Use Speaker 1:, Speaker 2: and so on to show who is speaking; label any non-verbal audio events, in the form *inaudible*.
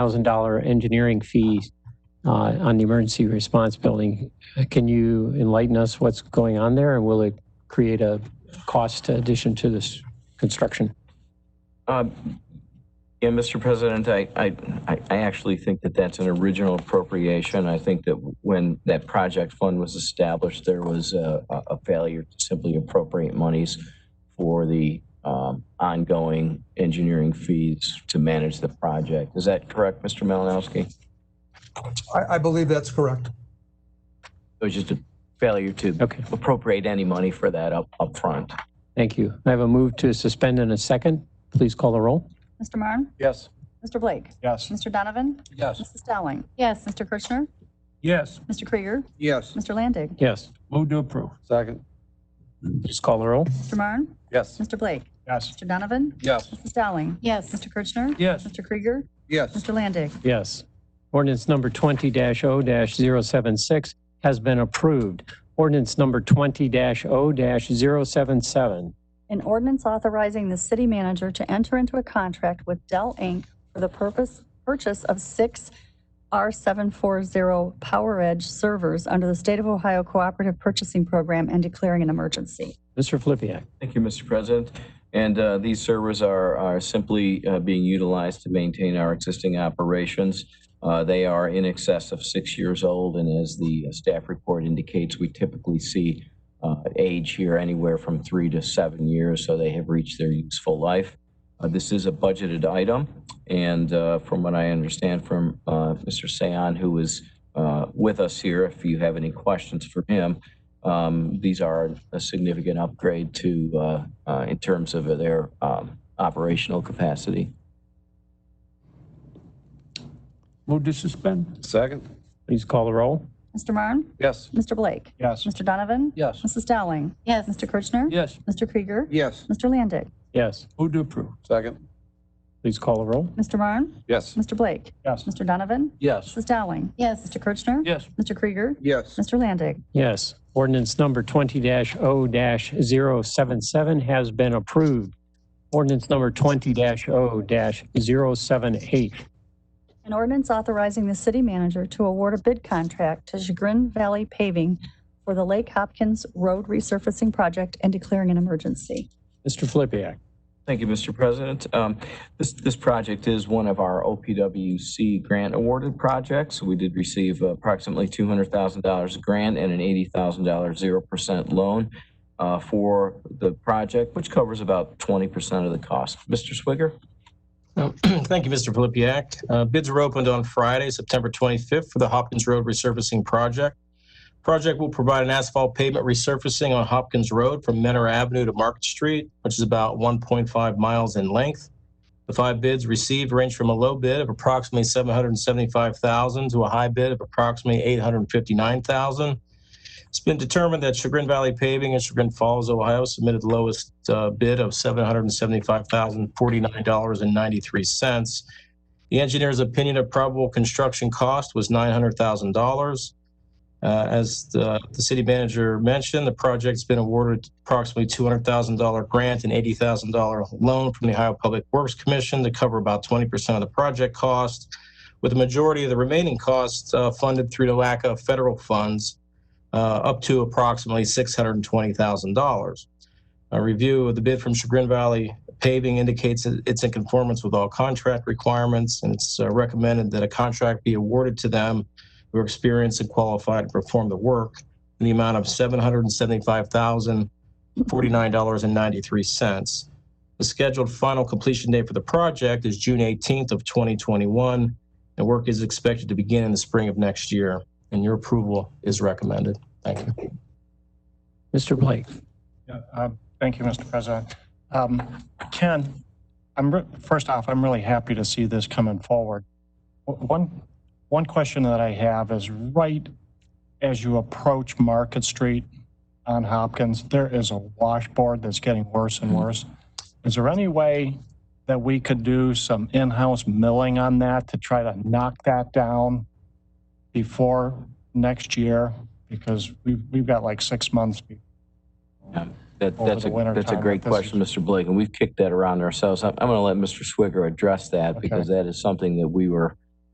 Speaker 1: thousand dollar engineering fee uh, on the emergency response building. Uh, Can you enlighten us what's going on there and will it create a cost addition to this construction?
Speaker 2: Um, Yeah, Mr. President, I, I, I I actually think that that's an original appropriation. I think that when that project fund was established, there was a, a a failure to simply appropriate monies for the um, ongoing engineering fees to manage the project. Is that correct, Mr. Malinowski?
Speaker 3: I, I believe that's correct.
Speaker 2: It was just a failure to
Speaker 1: Okay,
Speaker 2: appropriate any money for that up, upfront.
Speaker 1: thank you. I have a move to suspend in a second. Please call the roll.
Speaker 4: Mr. Marne?
Speaker 5: Yes.
Speaker 4: Mr. Blake?
Speaker 5: Yes.
Speaker 4: Mr. Donovan?
Speaker 5: Yes.
Speaker 4: Mrs. Dowling?
Speaker 6: Yes.
Speaker 4: Mr. Kirchner?
Speaker 5: Yes.
Speaker 4: Mr. Krieger?
Speaker 5: Yes.
Speaker 4: Mr. Landig?
Speaker 1: Yes,
Speaker 5: Move to approve. Second.
Speaker 1: please call the roll.
Speaker 4: Mr. Marne?
Speaker 5: Yes.
Speaker 4: Mr. Blake?
Speaker 5: Yes.
Speaker 4: Mr. Donovan?
Speaker 5: Yes.
Speaker 4: Mrs. Dowling?
Speaker 6: Yes.
Speaker 4: Mr. Kirchner?
Speaker 5: Yes.
Speaker 4: Mr. Krieger?
Speaker 5: Yes.
Speaker 4: Mr. Landig?
Speaker 1: Yes. Ordinance number 20-0-076 has been approved. Ordinance number 20-0-077.
Speaker 4: An ordinance authorizing the city manager to enter into a contract with Dell Inc. for the purpose, purchase of six R740 Power Edge servers under the State of Ohio Cooperative Purchasing Program and declaring an emergency.
Speaker 1: Mr. Flippia.
Speaker 2: Thank you, Mr. President. And uh, these servers are, are simply uh, being utilized to maintain our existing operations. Uh, They are in excess of six years old, and as the uh, staff report indicates, we typically see uh, age here anywhere from three to seven years, so they have reached their useful life. Uh, This is a budgeted item, and uh, from what I understand from uh, Mr. Seon, who is uh, with us here, if you have any questions for him, um, These are a significant upgrade to, uh, uh, in terms of their um, operational capacity.
Speaker 5: Move to suspend. Second.
Speaker 1: Please call the roll.
Speaker 4: Mr. Marne?
Speaker 5: Yes.
Speaker 4: Mr. Blake?
Speaker 5: Yes.
Speaker 4: Mr. Donovan?
Speaker 5: Yes.
Speaker 4: Mrs. Dowling?
Speaker 6: Yes.
Speaker 4: Mr. Kirchner?
Speaker 5: Yes.
Speaker 4: Mr. Krieger?
Speaker 5: Yes.
Speaker 4: Mr. Landig?
Speaker 1: Yes,
Speaker 5: Move to approve. Second.
Speaker 1: please call the roll.
Speaker 4: Mr. Marne?
Speaker 5: Yes.
Speaker 4: Mr. Blake?
Speaker 5: Yes.
Speaker 4: Mr. Donovan?
Speaker 5: Yes.
Speaker 4: Mrs. Dowling?
Speaker 6: Yes.
Speaker 4: Mr. Kirchner?
Speaker 5: Yes.
Speaker 4: Mr. Krieger?
Speaker 5: Yes.
Speaker 4: Mr. Landig?
Speaker 1: Yes. Ordinance number 20-0-077 has been approved. Ordinance number 20-0-078.
Speaker 4: An ordinance authorizing the city manager to award a bid contract to Chagrin Valley Paving for the Lake Hopkins Road Resurfacing Project and declaring an emergency.
Speaker 1: Mr. Flippia.
Speaker 2: Thank you, Mr. President. Um, This, this project is one of our OPWC grant awarded projects. We did receive approximately $200,000 grant and an $80,000 0% loan uh, for the project, which covers about 20% of the cost. Mr. Swigger?
Speaker 7: Um, *clears throat* Thank you, Mr. Filipiak. Uh, Bids were opened on Friday, September 25th for the Hopkins Road resurfacing project. Project will provide an asphalt pavement resurfacing on Hopkins Road from Menor Avenue to Market Street, which is about 1.5 miles in length. The five bids received range from a low bid of approximately 775000 to a high bid of approximately 859000 It's been determined that Chagrin Valley Paving and Chagrin Falls, Ohio submitted the lowest uh, bid of $775,049.93. The engineer's opinion of probable construction cost was $900,000. Uh, As the the city manager mentioned, the project's been awarded approximately $200,000 grant and $80,000 loan from the Ohio Public Works Commission to cover about 20% of the project cost, with the majority of the remaining costs uh, funded through the lack of federal funds uh, up to approximately $620,000. A review of the bid from Chagrin Valley Paving indicates that it's in conformance with all contract requirements, and it's uh, recommended that a contract be awarded to them who are experienced and qualified to perform the work in the amount of $775,049.93. The scheduled final completion date for the project is June 18th of 2021, and work is expected to begin in the spring of next year and your approval is recommended. Thank you.
Speaker 1: Mr. Blake.
Speaker 8: Yeah, uh, Thank you, Mr. President. Um, Ken, I'm, re- first off, I'm really happy to see this coming forward. W- One, one question that I have is right as you approach Market Street on Hopkins, there is a washboard that's getting worse and worse. Is there any way that we could do some in-house milling on that to try to knock that down before next year? Because we've, we've got like six months before
Speaker 2: That,
Speaker 8: over
Speaker 2: that's
Speaker 8: the
Speaker 2: a,
Speaker 8: winter
Speaker 2: that's a
Speaker 8: time,
Speaker 2: great
Speaker 8: that doesn't-
Speaker 2: question, Mr. Blake, and we've kicked that around ourselves. I'm, I'm going to let Mr. Swigger address that because that is something that we were